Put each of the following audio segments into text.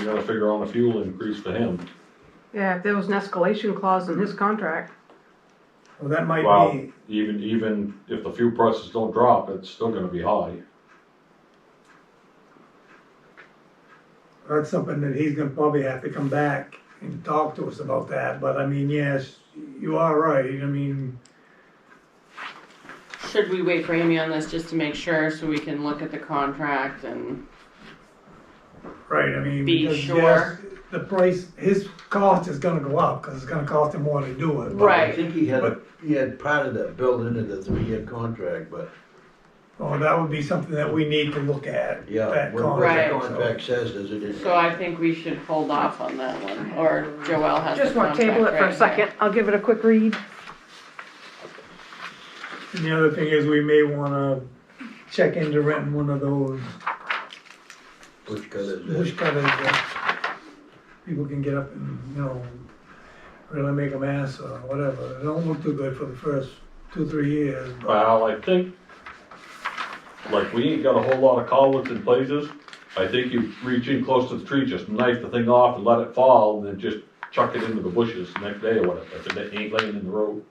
You gotta figure on a fuel increase for him. Yeah, if there was an escalation clause in his contract, Well, that might Wow, be, even, even if the fuel prices don't drop, it's still gonna be high. that's something that he's gonna probably have to come back and talk to us about that, but I mean, yes, you are right, I mean, Should we wait for Amy on this just to make sure so we can look at the contract and right, I mean, Be because sure. yes, the price, his cost is gonna go up, cause it's gonna cost him more to do it. but- Right. I think he had, he had part of that built into the three-year contract, but Well, oh, that would be something that we need to look at, yeah, that what what the Right. contract, so. contract says is it is. so I think we should hold off on that one or Joelle has just the wanna contract table it for a right second, here. I'll give it a quick read. And the other thing is, we may wanna check into renting one of those Which color is bush this? cutters that people can get up and, you know, really make a mess or whatever. They don't look too good for the first two, three years, but Well, I think, like, we ain't got a whole lot of collards in places. I think you reach in close to the tree, just knife the thing off and let it fall, and then just chuck it into the bushes the next day or whatever, if it ain't laying in the road.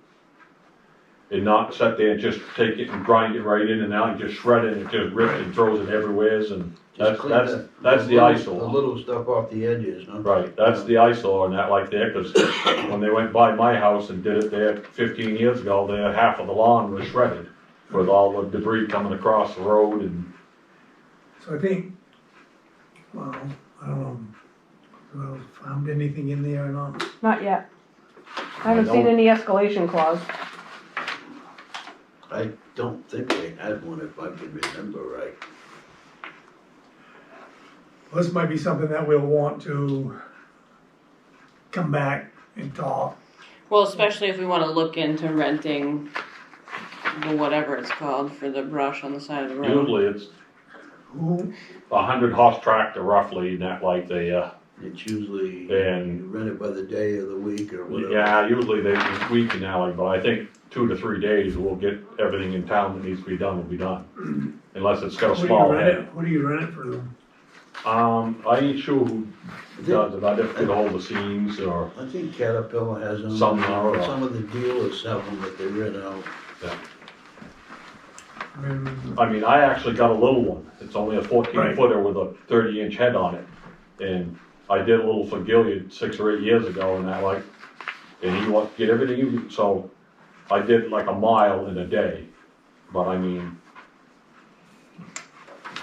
And not sit there and just take it and grind it right in and out, and just shred it, and just rips and throws it everywheres, and that's, Just clean that's, that's the little- eyesore. The little stuff off the edges, no? Right, that's the eyesore and that like there, cause when they went by my house and did it there fifteen years ago, there, half of the lawn was shredded with all the debris coming across the road and, so I think, well, I don't know, well, found anything in there or not. Not yet. I haven't seen don't- any escalation clause. I don't think they had one if I can remember right. This might be something that we'll want to come back and talk. Well, especially if we wanna look into renting the whatever it's called for the brush on the side of the road. usually it's Who, a hundred horse tractor roughly and that like uh, there. It's usually, And- you rent it by the day of the week or whatever. Yeah, usually they week in alley, but I think two to three days we'll get everything in town that needs to be done will be done. Unless it's got a who do you small rent head. it, who do you rent it for? Um, I ain't sure who I think- does it, I'd have to get ahold of Seams or, I think Caterpillar has them. Some are, uh, Some of the dealers have them that they rent out. I mean, I mean, I actually got a little one. It's only a fourteen Right. footer with a thirty inch head on it. And I did a little for Gilead six or eight years ago and I like, and he wanted to get everything, he- so I did like a mile in a day. But I mean,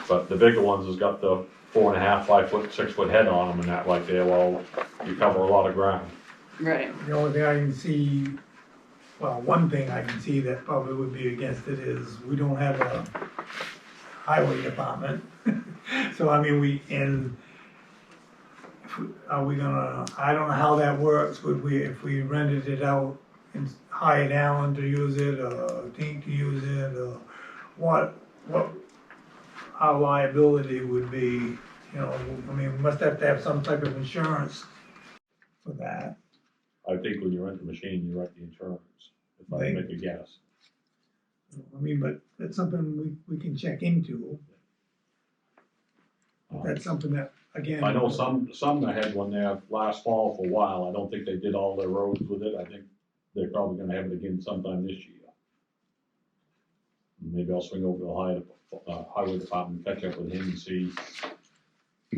but the bigger ones has got the four and a half, five foot, six foot head on them and that like there, well, you cover a lot of ground. Right, The only thing I can see, well, one thing I can see that probably would be against it is we don't have a highway department. So I mean, we, and if we- are we gonna, I don't know how that works, would we, if we rented it out and hired Alan to use it or Tink to use it or what, what our liability would be, you know, I mean, we must have to have some type of insurance for that. I think when you rent the machine, you rent the insurance, if I Right. make a guess. I mean, but that's something we, we can check into. Um, That's something that, again. I know some, some I had one there last fall for a while, I don't think they did all their roads with it, I think they're probably gonna have it again sometime this year. Maybe I'll swing over to the high, uh, highway department, catch up with him and see.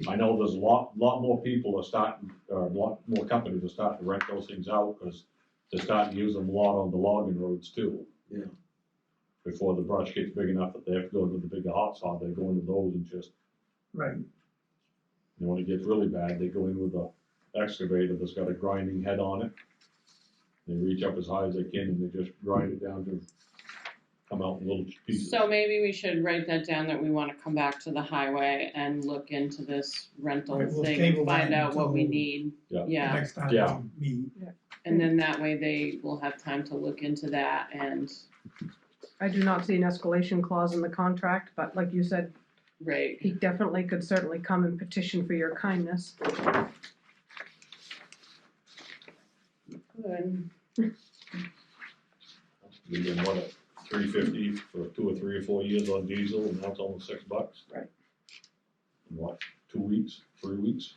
I know there's a lot, lot more people are starting, or a lot more companies are starting to rent those things out, cause they're starting to use them a lot on the logging roads too. Yeah. Before the brush gets big enough that they have to go to the bigger hot saw, they go into those and just Right, and when it gets really bad, they go in with a excavator that's got a grinding head on it. They reach up as high as they can and they just grind it down to come out in little pieces. so maybe we should write that down that we wanna come back to the highway and look into this rental Right, we'll thing table and find that out what we until- need. Yeah. Yeah. next time Yeah. we meet. And then that way they will have time to look into that and, I do not see an escalation clause in the contract, but like you said, right, he definitely could certainly come and petition for your kindness. good. We get what, three fifty for two or three or four years on diesel and that's almost six bucks? Right. In What, two weeks, three weeks?